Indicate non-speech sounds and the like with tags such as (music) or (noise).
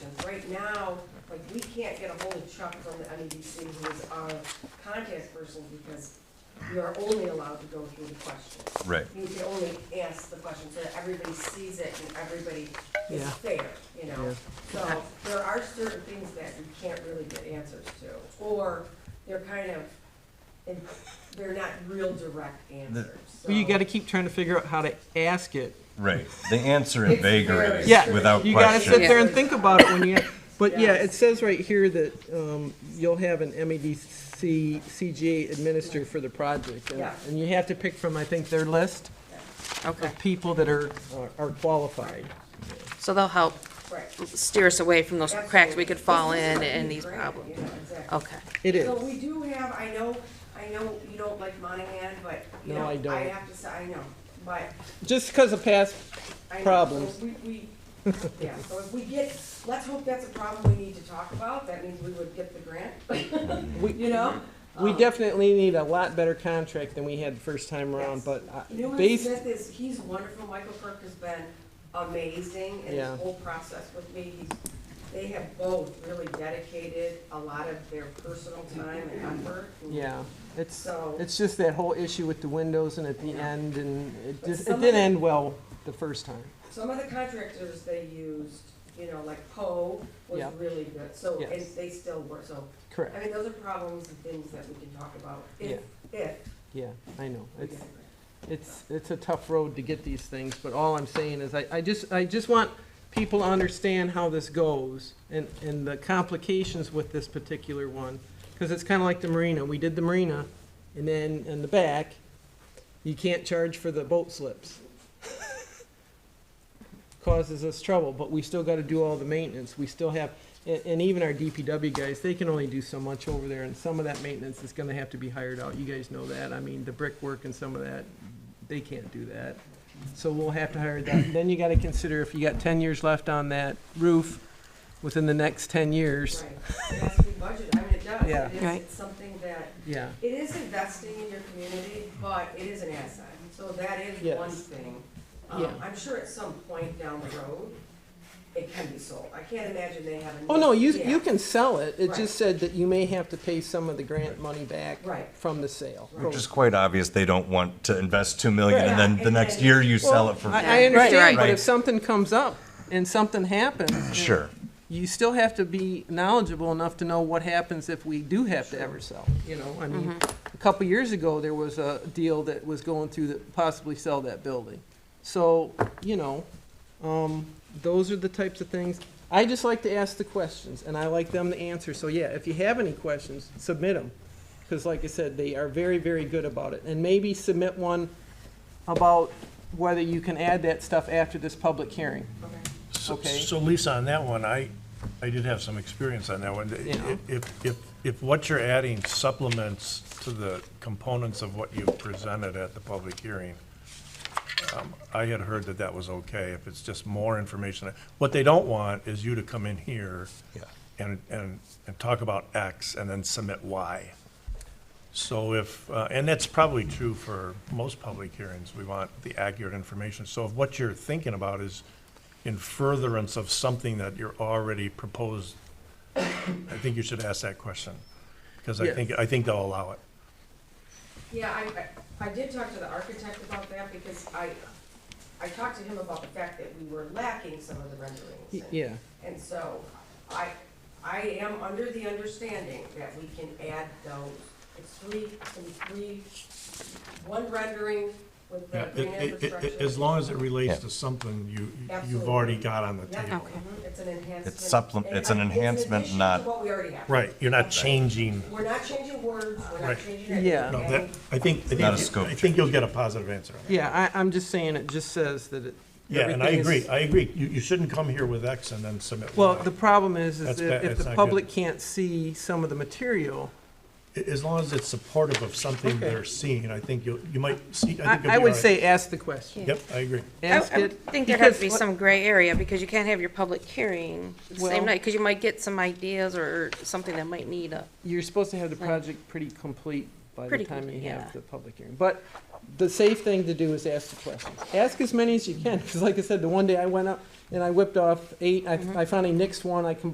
now, like, we can't get a hold of Chuck from the MEDC, who is our contact person, because we are only allowed to go through the questions. Right. You can only ask the question so that everybody sees it and everybody is Yeah. fair, you know? So there are certain things that we can't really get answers to, or they're kind of, and they're not real direct answers, so. Well, you got to keep trying to figure out how to ask it. Right. They answer in It's vagaries Yeah, without You got to sit question. there and think about it when you. But yeah, Yes. it says right here that um, you'll have an MEDC CGA administrator for the project, and, Yeah. and you have to pick from I think their list Okay, of people that are uh, are- are qualified. so they'll help Right. steer us away from those cracks we could fall Absolutely. This in is and a these great, problems. you know, exactly. Okay, It is. So we do have, I know, I know you don't like Monahan, but, you No, know, I don't. I have to say, I know, but Just because of past, I know, so Problems. We, (laughs) we, yeah, so if we get, let's hope that's a problem we need to talk about, that means we would get the grant, (laughs) we, you know? we Um, definitely need a lot better contract than we had the first time around, Yes. but uh, Newman based, Smith is, he's wonderful, Michael Kirk has been amazing in Yeah. this whole process with me, he's, they have both really dedicated a lot of their personal time and effort. and yeah, it's, So- it's just that whole issue with the windows and at the Yeah. end, and it But just, some it of didn't it- end well the first time. Some of the contractors they used, you know, like Poe was Yeah. really good, so, and Yes. they still were, so, I Correct, mean, those are problems and things that we can talk about, Yeah. if, if yeah, I know. we It's, get a grant. it's, it's a tough road to get these things, but all I'm saying is I, I just, I just want people to understand how this goes and, and the complications with this particular one. Because it's kind of like the marina. We did the marina and then in the back, you can't charge for the boat slips. (laughs) Causes us trouble, but we still got to do all the maintenance. We still have, and, and even our DPW guys, they can only do so much over there and some of that maintenance is going to have to be hired out. You guys know that. I mean, the brickwork and some of that, they can't do that. So we'll have to hire that. Then you gotta consider if you got ten years left on that roof within the next ten years. Right, it has to be budgeted, I mean, it does, Yeah. it is, Right. it's something that, Yeah, it is investing in your community, but it is an asset, so that is Yes. one thing. Yeah. Um, I'm sure at some point down the road, it can be sold, I can't imagine they have a. Oh, no, you, need- you yeah. can sell it. It Right. just said that you may have to pay some of the grant money back Right. from the sale. Which is quite obvious. They don't want to invest two million and Right. then Yeah, the and next then- year you sell Well, it for. I, I Right, understand, right. but Right. if something comes up and something happens. Sure. You still have to be knowledgeable enough to know what happens if we do have to ever sell, you know, I mean, a couple years ago, there was a deal that was going through that possibly sell that building. So, you know, um, those are the types of things, I just like to ask the questions, and I like them to answer, so yeah, if you have any questions, submit them. Because like I said, they are very, very good about it, and maybe submit one about whether you can add that stuff after this public hearing. Okay. So- Okay. So Lisa, on that one, I, I did have some experience on that one. Yeah. If, if, if what you're adding supplements to the components of what you presented at the public hearing, um, I had heard that that was okay, if it's just more information. What they don't want is you to come in here and, and, and talk about X and then submit Y. So if, uh, and that's probably true for most public hearings, we want the accurate information. So if what you're thinking about is in furtherance of something that you're already proposed, I think you should ask that question, because I think, I think they'll allow it. Yeah, I, I I did talk to the architect about that because I, I talked to him about the fact that we were lacking some of the renderings. Y- and- Yeah, And so I, I am under the understanding that we can add those, it's three, and three, one rendering with the green infrastructure. As long as it relates Yeah. to something you, Absolutely. you've already got on the Yeah, table. Okay. mhm, It's an enhancement. It's supplem- And it's an I- enhancement, addition not- to what we already have. Right, you're not changing, We're not changing words, we're not Right. changing anything. Yeah. no, okay? that, I think, I Not a think, scope I think you'll get a positive answer. on that. yeah, I, I'm just saying, it just says that it. Yeah, and I everything is- agree, I agree. You, you shouldn't come here with X and then submit Well, Y. the problem is, is That's that bad. if It's the not public good. can't see some of the material, A- As long as it's supportive of something Okay. they're seeing, I think you'll, you might see, I I, think you'll be I all would right. say ask the question. Yep, I agree. I, Ask I it. think there has to be because- some gray area, because you can't have your public hearing the Well- same night, because you might get some ideas or something that might need a, You're supposed to have the project pretty complete by the Pretty time you complete, have yeah. the public hearing. But the safe thing to do is ask the questions. Ask Mm-hmm. as many as you can, because like I said, the one day I went up and I whipped off eight, I, I finally nixed one, I combined